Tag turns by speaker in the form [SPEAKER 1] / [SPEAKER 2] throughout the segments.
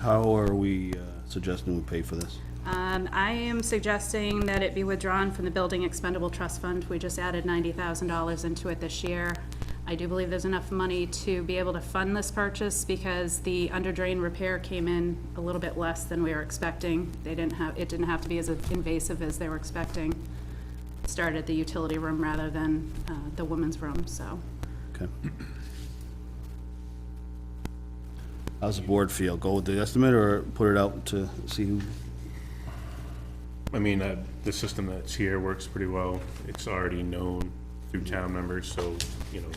[SPEAKER 1] How are we uh, suggesting we pay for this?
[SPEAKER 2] Um, I am suggesting that it be withdrawn from the Building Expendable Trust Fund. We just added ninety thousand dollars into it this year. I do believe there's enough money to be able to fund this purchase because the under drain repair came in a little bit less than we were expecting. They didn't have, it didn't have to be as invasive as they were expecting. Started at the utility room rather than, uh, the women's room, so.
[SPEAKER 1] Okay. How's the board feel? Go with the estimate or put it out to see who?
[SPEAKER 3] I mean, uh, the system that's here works pretty well. It's already known through
[SPEAKER 4] Mm-hmm.
[SPEAKER 3] town members, so, you know,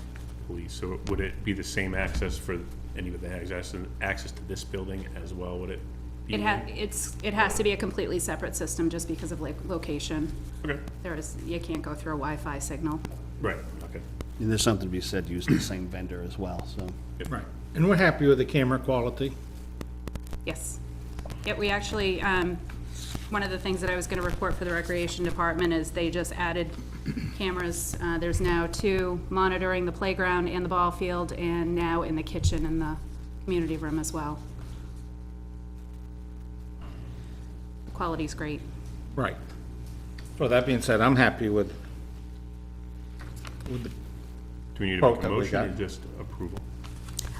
[SPEAKER 3] police. So would it be the same access for any of the access, access to this building as well? Would it be?
[SPEAKER 2] It ha, it's, it has to be a completely separate system just because of like location.
[SPEAKER 3] Okay,
[SPEAKER 2] There is, you can't go through a Wi-Fi signal.
[SPEAKER 3] right, okay.
[SPEAKER 1] And there's something to be said, use the same vendor as well, so.
[SPEAKER 4] Right, and we're happy with the camera quality.
[SPEAKER 2] Yes. Yeah, we actually, um, one of the things that I was gonna report for the recreation department is they just added cameras. Uh, there's now two monitoring the playground and the ball field, and now in the kitchen and the community room as well. The Quality's great.
[SPEAKER 4] Right. So that being said, I'm happy with, with, the-
[SPEAKER 3] Do we need to make
[SPEAKER 4] Quote
[SPEAKER 3] a
[SPEAKER 4] that we
[SPEAKER 3] motion or
[SPEAKER 4] got.
[SPEAKER 3] just approval?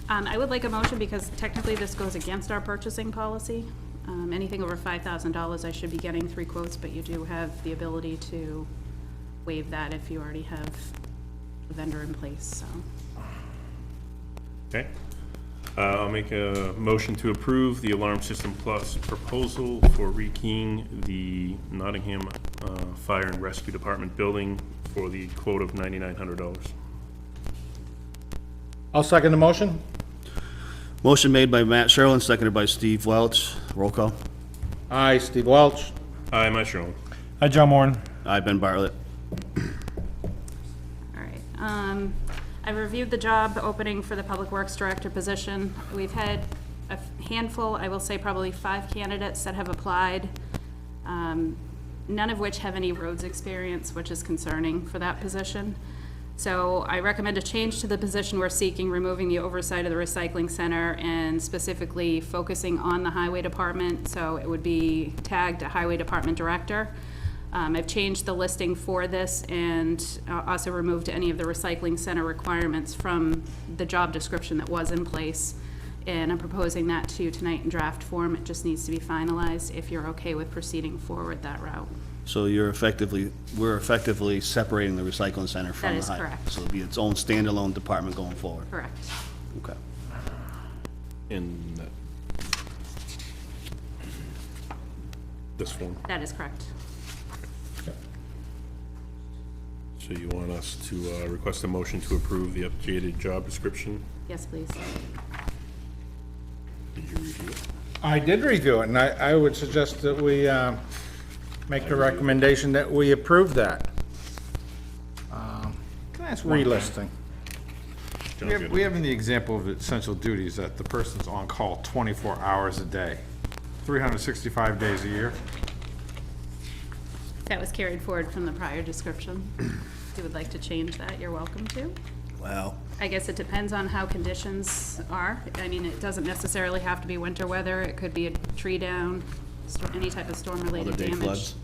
[SPEAKER 2] Um, I would like a motion because technically this goes against our purchasing policy. Um, anything over five thousand dollars, I should be getting three quotes, but you do have the ability to waive that if you already have a vendor in place, so.
[SPEAKER 3] Okay. Uh, I'll make a motion to approve the Alarm System Plus proposal for rekeying the Nottingham uh, Fire and Rescue Department building for the quote of ninety-nine hundred dollars.
[SPEAKER 4] I'll second the motion.
[SPEAKER 1] Motion made by Matt Sherlin, seconded by Steve Welch. Roll call.
[SPEAKER 4] Aye, Steve Welch.
[SPEAKER 3] Aye, Matt Sherlin.
[SPEAKER 5] Hi, John Moran.
[SPEAKER 1] Aye, Ben Bartlett.
[SPEAKER 2] All right. Um, I reviewed the job opening for the Public Works Director position. We've had a handful, I will say probably five candidates that have applied, um, none of which have any roads experience, which is concerning for that position. So I recommend a change to the position we're seeking, removing the oversight of the recycling center and specifically focusing on the highway department. So it would be tagged a highway department director. Um, I've changed the listing for this and uh, also removed any of the recycling center requirements from the job description that was in place. And I'm proposing that to you tonight in draft form. It just needs to be finalized if you're okay with proceeding forward that route.
[SPEAKER 1] So you're effectively, we're effectively separating the recycling center from
[SPEAKER 2] That
[SPEAKER 1] the
[SPEAKER 2] is
[SPEAKER 1] high.
[SPEAKER 2] correct.
[SPEAKER 1] So it'll be its own standalone department going forward.
[SPEAKER 2] Correct.
[SPEAKER 1] Okay.
[SPEAKER 3] in that- this form.
[SPEAKER 2] That is correct.
[SPEAKER 3] So you want us to uh, request a motion to approve the updated job description?
[SPEAKER 2] Yes, please.
[SPEAKER 3] Did you review it?
[SPEAKER 4] I did review it, and I, I would suggest that we, uh, make the recommendation that we approve that. Um, Can I ask one? Relisting.
[SPEAKER 6] We
[SPEAKER 3] John,
[SPEAKER 6] have,
[SPEAKER 3] good.
[SPEAKER 6] we have in the example of essential duties that the person's on call twenty-four hours a day, three hundred and sixty-five days a year.
[SPEAKER 2] That was carried forward from the prior description. If you would like to change that, you're welcome to.
[SPEAKER 1] Wow.
[SPEAKER 2] I guess it depends on how conditions are. I mean, it doesn't necessarily have to be winter weather. It could be a tree down, sto- any type of
[SPEAKER 1] Other
[SPEAKER 2] storm-related
[SPEAKER 1] day
[SPEAKER 2] damage.
[SPEAKER 1] floods.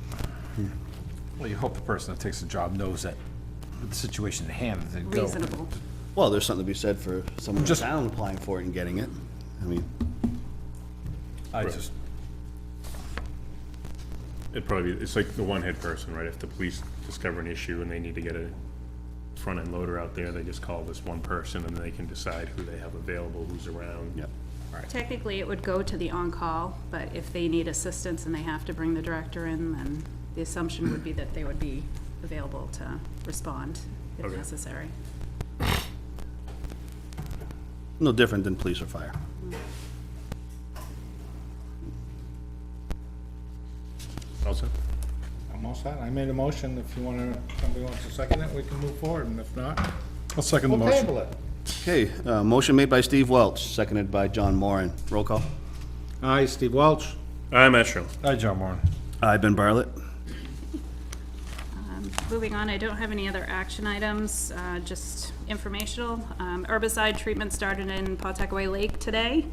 [SPEAKER 6] Well, you hope the person that takes the job knows that the situation at hand, that they go.
[SPEAKER 2] Reasonable.
[SPEAKER 1] Well, there's something to be said for someone in
[SPEAKER 6] Just-
[SPEAKER 1] town applying for it and getting it. I mean,
[SPEAKER 6] I just,
[SPEAKER 3] It probably, it's like the one-head person, right? If the police discover an issue and they need to get a front-end loader out there, they just call this one person and they can decide who they have available, who's around.
[SPEAKER 1] Yep.
[SPEAKER 2] Technically, it would go to the on-call, but if they need assistance and they have to bring the director in, then the assumption would be that they would be available to respond if
[SPEAKER 3] Okay.
[SPEAKER 2] necessary.
[SPEAKER 1] no different than police or fire.
[SPEAKER 3] Also,
[SPEAKER 4] I'm all set. I made a motion. If you wanna, somebody wants to second it, we can move forward, and if not,
[SPEAKER 5] I'll second the
[SPEAKER 4] we'll
[SPEAKER 5] motion.
[SPEAKER 4] table it.
[SPEAKER 1] Okay, uh, motion made by Steve Welch, seconded by John Moran. Roll call.
[SPEAKER 4] Aye, Steve Welch.
[SPEAKER 3] I'm Matt Sherlin.
[SPEAKER 5] Hi, John Moran.
[SPEAKER 1] Aye, Ben Bartlett.
[SPEAKER 2] Moving on, I don't have any other action items, uh, just informational. Um, Herbicide treatment started in Pawtuckaway Lake today.